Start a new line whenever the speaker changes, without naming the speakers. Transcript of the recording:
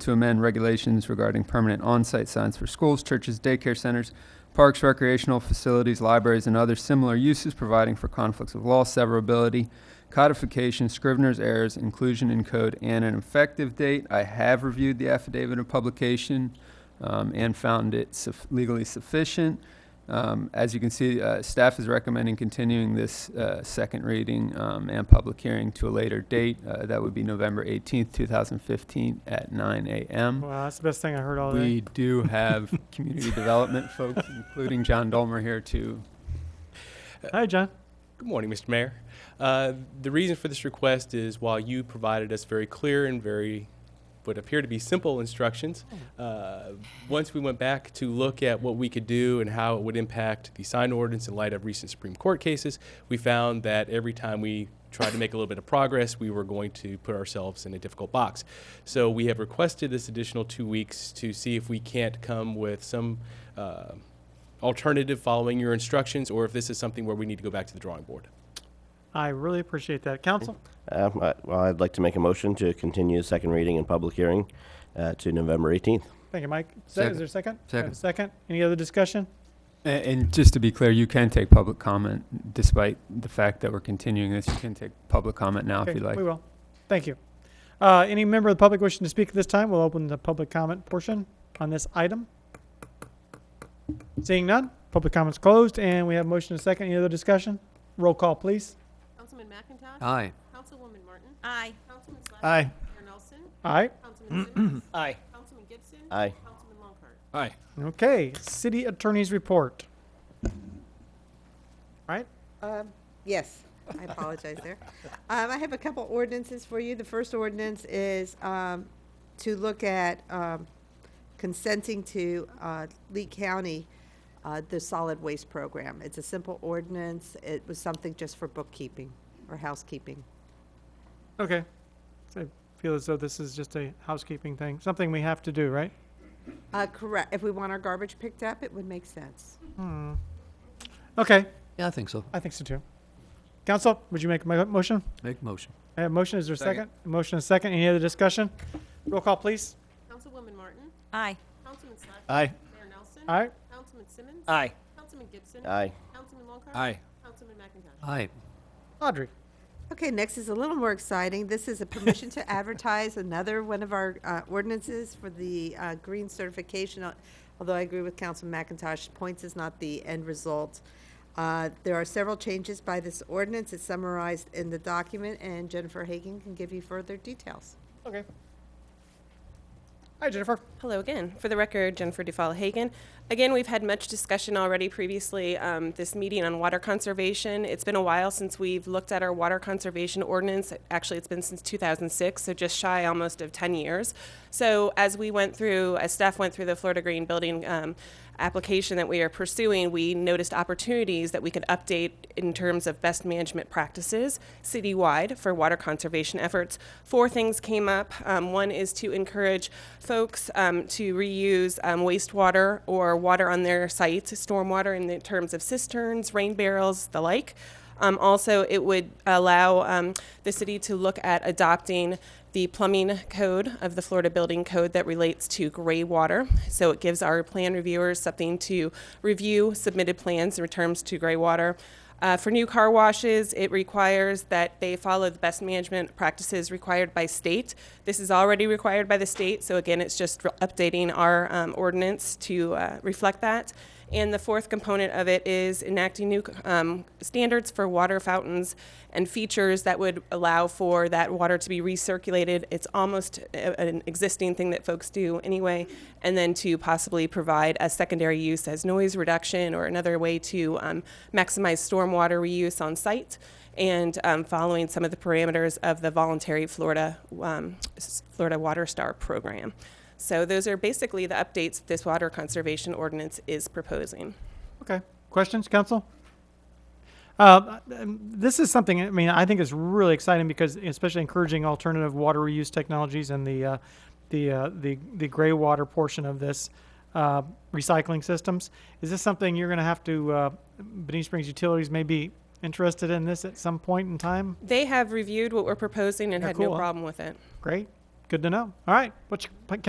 to amend regulations regarding permanent on-site signs for schools, churches, daycare centers, parks, recreational facilities, libraries, and other similar uses, providing for conflicts of law, severability, codification, scrivener's errors, inclusion in code, and an effective date. I have reviewed the affidavit of publication um, and found it suf- legally sufficient. Um, As you can see, uh, staff is recommending continuing this uh, second reading um, and public hearing to a later date. Uh, That would be November 18th, 2015, at 9 a.m.
Wow, that's the best thing I heard all day.
We do have community development folks, including John Dolmer here too.
Hi, John.
Good morning, Mr. Mayor. Uh, The reason for this request is while you provided us very clear and very, what appear to be simple instructions, uh, once we went back to look at what we could do and how it would impact the sign ordinance in light of recent Supreme Court cases, we found that every time we tried to make a little bit of progress, we were going to put ourselves in a difficult box. So we have requested this additional two weeks to see if we can't come with some uh, alternative following your instructions, or if this is something where we need to go back to the drawing board.
I really appreciate that. Council,
Uh, I- Well, I'd like to make a motion to continue the second reading and public hearing uh, to November 18th.
thank you, Mike. Is that- is
Second.
there a second? I have
Second.
a second. Any other discussion?
And, and just to be clear, you can take public comment despite the fact that we're continuing this. You can take public comment now if
Okay,
you'd like.
We will. Thank you. Uh, any member of the public wishing to speak at this time, we'll open the public comment portion on this item. Seeing none, public comments closed, and we have motion and second. Any other discussion? Roll call, please.
Councilman McIntosh?
Aye.
Councilwoman Martin? Aye. Councilman Slatter?
Aye.
Mayor Nelson?
Aye.
Councilman Simmons?
Aye.
Councilman Gibson?
Aye.
Councilman Longheart?
Aye.
Okay, city attorney's report. Right?
Um, Yes, I apologize there. Um, I have a couple ordinances for you. The first ordinance is um, to look at um, consenting to uh, Lee County, uh, the solid waste program. It's a simple ordinance. It was something just for bookkeeping or housekeeping.
Okay. So I feel as though this is just a housekeeping thing, something we have to do, right?
Uh, Correct, if we want our garbage picked up, it would make sense.
Okay,
Yeah, I think so.
I think so too. Council, would you make a mo- motion?
Make motion.
I have a motion, is there a second?
Second.
A Motion and a second, any other discussion? Roll call, please.
Councilwoman Martin?
Aye.
Councilman Slatter?
Aye.
Mayor Nelson?
All right,
Councilman Simmons?
Aye.
Councilman Gibson?
Aye.
Councilman Longheart?
Aye.
Councilman McIntosh?
Aye.
Audrey.
Okay, next is a little more exciting. This is a permission to advertise another one of our uh, ordinances for the uh, green certification, al- although I agree with Councilman McIntosh, points is not the end result. Uh, There are several changes by this ordinance. It's summarized in the document, and Jennifer Hagan can give you further details.
Okay. Hi, Jennifer.
Hello again. For the record, Jennifer Dufall Hagen. Again, we've had much discussion already previously, um, this meeting on water conservation. It's been a while since we've looked at our water conservation ordinance. Actually, it's been since 2006, so just shy almost of 10 years. So as we went through, as staff went through the Florida Green Building um, application that we are pursuing, we noticed opportunities that we could update in terms of best management practices citywide for water conservation efforts. Four things came up. Um, one is to encourage folks um, to reuse um, wastewater or water on their sites, stormwater in the terms of cisterns, rain barrels, the like. Um, also, it would allow um, the city to look at adopting the plumbing code of the Florida Building Code that relates to gray water. So it gives our plan reviewers something to review submitted plans in terms to gray water. Uh, for new car washes, it requires that they follow the best management practices required by state. This is already required by the state, so again, it's just re- updating our um, ordinance to uh, reflect that. And the fourth component of it is enacting new um, standards for water fountains and features that would allow for that water to be recirculated. It's almost a- an existing thing that folks do anyway. And then to possibly provide a secondary use as noise reduction or another way to um, maximize stormwater reuse on site and um, following some of the parameters of the voluntary Florida, um, s- Florida Water Star program. So those are basically the updates this water conservation ordinance is proposing.
Okay, questions, council? Uh, um, This is something, I mean, I think is really exciting because especially encouraging alternative water reuse technologies and the, uh, the, uh, the, the gray water portion of this uh, recycling systems. Is this something you're going to have to, uh, Benita Springs Utilities may be interested in this at some point in time?
They have reviewed what we're proposing and
Yeah,
had
cool,
no
huh?
problem with it.
Great, good to know. All right, what's your,